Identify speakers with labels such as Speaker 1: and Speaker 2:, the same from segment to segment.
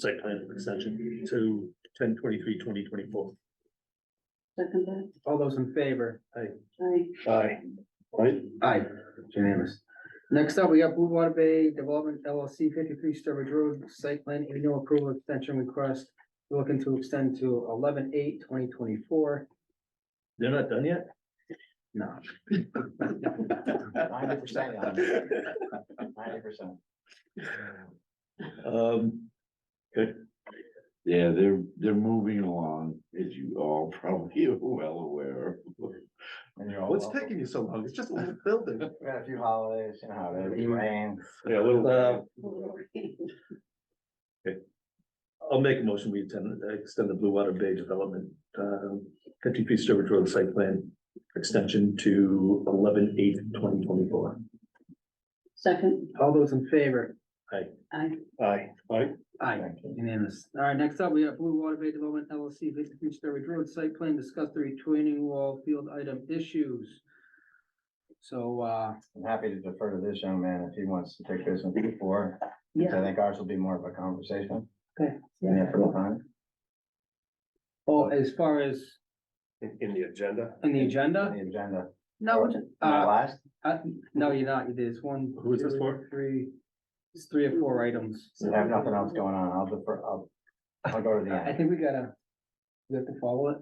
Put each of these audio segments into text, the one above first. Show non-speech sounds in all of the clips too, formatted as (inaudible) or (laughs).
Speaker 1: site plan extension to ten twenty-three, twenty twenty-four.
Speaker 2: Second that,
Speaker 3: All those in favor?
Speaker 2: I,
Speaker 1: Aye. Right?
Speaker 3: Aye, It's unanimous. Next up, we got Blue Water Bay Development LLC fifty-three Sturbridge Road Site Plan Annual Approval Extension Request. We're Looking to extend to 11-8-2024.
Speaker 1: They're not done yet? (laughs)
Speaker 3: No,
Speaker 4: Ninety percent, ninety percent.
Speaker 1: Um,
Speaker 5: Yeah, they're, they're moving along, as you all (laughs) probably are well aware.
Speaker 1: what's taking you so long? It's just a little building.
Speaker 4: We had a few holidays, you know, how it
Speaker 6: Mm-hmm.
Speaker 4: is, rain.
Speaker 5: Yeah, little.
Speaker 1: Uh, I'll make a motion, we extend, extend the Blue Water Bay Development, um, fifty-three Sturbridge Road Site Plan extension to eleven eight twenty twenty-four.
Speaker 2: second,
Speaker 3: all those in favor?
Speaker 2: I,
Speaker 1: Aye. Aye.
Speaker 3: Aye,
Speaker 4: Thank you.
Speaker 3: unanimous. All right, next up, we have Blue Water Bay Development LLC fifty-three Sturbridge Road Site Plan. Discuss the retaining wall field item issues. So, uh,
Speaker 4: I'm happy to defer to this young man if he wants to take this one before.
Speaker 2: yeah.
Speaker 4: I think ours will be more of a conversation.
Speaker 3: Okay.
Speaker 4: In the full time.
Speaker 3: oh, as far as
Speaker 6: In, in the agenda,
Speaker 3: in the
Speaker 4: On
Speaker 3: agenda,
Speaker 4: The agenda.
Speaker 3: no,
Speaker 4: Am I
Speaker 3: uh,
Speaker 4: last?
Speaker 3: Uh, no, you're not, you did, it's one.
Speaker 1: Who is this
Speaker 3: two,
Speaker 1: for?
Speaker 3: Three, it's three or four items.
Speaker 4: We have nothing else going on. I'll defer, I'll, I'll go to the
Speaker 3: I
Speaker 4: end.
Speaker 3: think we gotta, we have to follow it.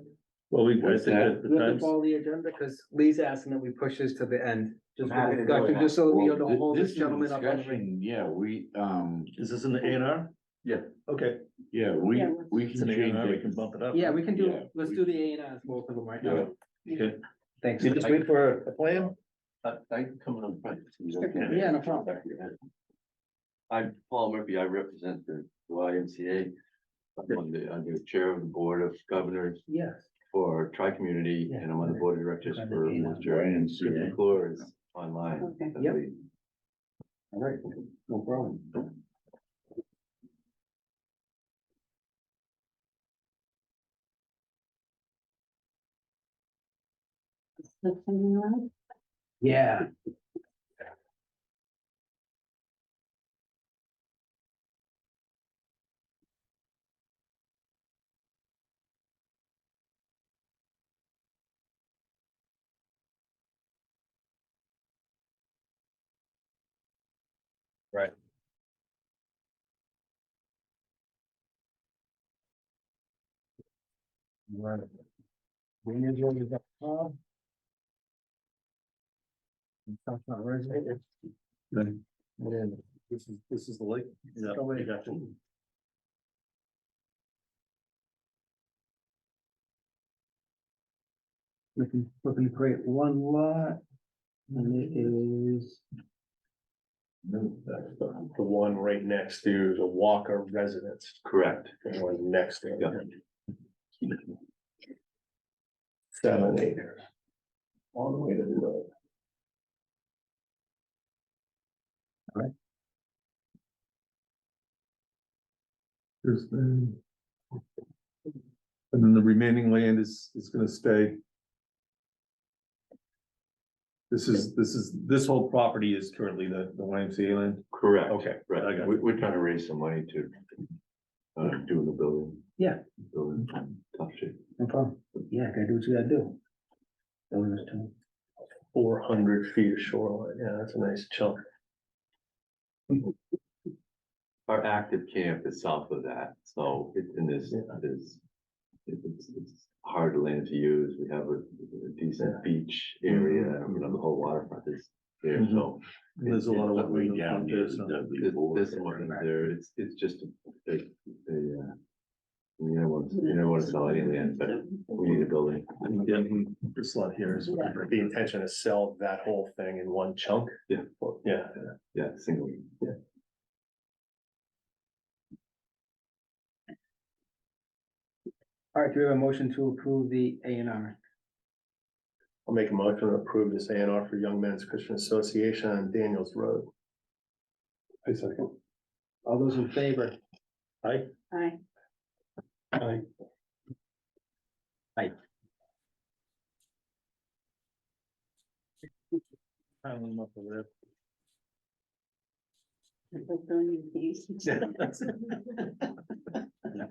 Speaker 1: Well, we, I
Speaker 5: What's
Speaker 1: think that the
Speaker 3: We have to
Speaker 1: times,
Speaker 3: follow the agenda, because Lee's asking that we push this to the end. Just
Speaker 4: I'm happy
Speaker 3: for
Speaker 4: to do it.
Speaker 3: discussion, just so we
Speaker 5: Well,
Speaker 3: don't
Speaker 5: thi-
Speaker 3: hold
Speaker 5: This
Speaker 3: this
Speaker 5: is
Speaker 3: gentleman up. on the ring.
Speaker 5: discussion, yeah, we, um,
Speaker 1: is this in the A and R?
Speaker 6: Yeah.
Speaker 1: Okay.
Speaker 5: yeah, we,
Speaker 2: Yeah, let's-
Speaker 5: we
Speaker 1: It's
Speaker 5: can
Speaker 1: an A
Speaker 5: change
Speaker 1: and R, we
Speaker 5: it.
Speaker 1: can bump it up.
Speaker 3: Yeah, we can
Speaker 5: Yeah,
Speaker 3: do, let's
Speaker 5: we-
Speaker 3: do the A and R's, both of them right now.
Speaker 1: Okay.
Speaker 3: Thanks.
Speaker 1: You just wait for a plan?
Speaker 6: I, I'm coming up. front.
Speaker 3: Yeah, no problem.
Speaker 6: I'm Paul Murphy, I represent the YMCA. I'm on the, I'm the chair of the board of governors
Speaker 3: Yes.
Speaker 6: for tri-community and I'm on the board of directors for Worcester.
Speaker 5: Giant
Speaker 6: Chris
Speaker 5: CA.
Speaker 6: McClure is online.
Speaker 2: Okay,
Speaker 3: Yep.
Speaker 6: All right, no problem.
Speaker 2: that's something wrong,
Speaker 3: Yeah.
Speaker 4: We need you to- uh,
Speaker 3: That's not resonating.
Speaker 1: This is, this is the lake. Yeah, I got you.
Speaker 3: Looking, looking to create one lot. And it is.
Speaker 7: The one right next to the Walker residence,
Speaker 6: Correct.
Speaker 7: the one next to.
Speaker 6: Yeah.
Speaker 7: Seven acres.
Speaker 6: All the way to the road.
Speaker 1: There's the- And then the remaining land is, is gonna stay. This is, this is, this whole property is currently the, the YMCA land.
Speaker 6: Correct.
Speaker 1: Okay, I got
Speaker 6: Right, we, we're trying to raise some money to, uh, do the building.
Speaker 3: Yeah.
Speaker 6: Building, tough shit.
Speaker 3: No problem. Yeah, gotta do what you gotta do. That was just time.
Speaker 7: Four hundred feet of shoreline, yeah, that's a nice chunk.
Speaker 6: Our active camp is south of that, so it's in this, this. It's, it's hard land to use, we have a a decent beach area,
Speaker 1: Mm-hmm.
Speaker 6: you know, the whole waterfront is there, so.
Speaker 1: There's a lot of
Speaker 5: It's way
Speaker 1: wetland
Speaker 5: down
Speaker 1: Mm-hmm. up
Speaker 5: here,
Speaker 1: there, so-
Speaker 5: Dudley
Speaker 6: This,
Speaker 5: Ford.
Speaker 6: this one there, it's, it's just a, a, a, uh. You never want, you never want to sell any land, but we need a building,
Speaker 1: Yeah, this lot here is. what we're-
Speaker 7: The intention is sell that whole thing in one chunk.
Speaker 6: Yeah.
Speaker 7: Yeah,
Speaker 6: yeah, single, yeah.
Speaker 3: All right, do we have a motion to approve the A and R?
Speaker 7: I'll make a motion to approve this A and R for Young Men's Christian Association on Daniels Road.
Speaker 1: I second.
Speaker 3: All those in favor?
Speaker 2: I, Like, don't you think?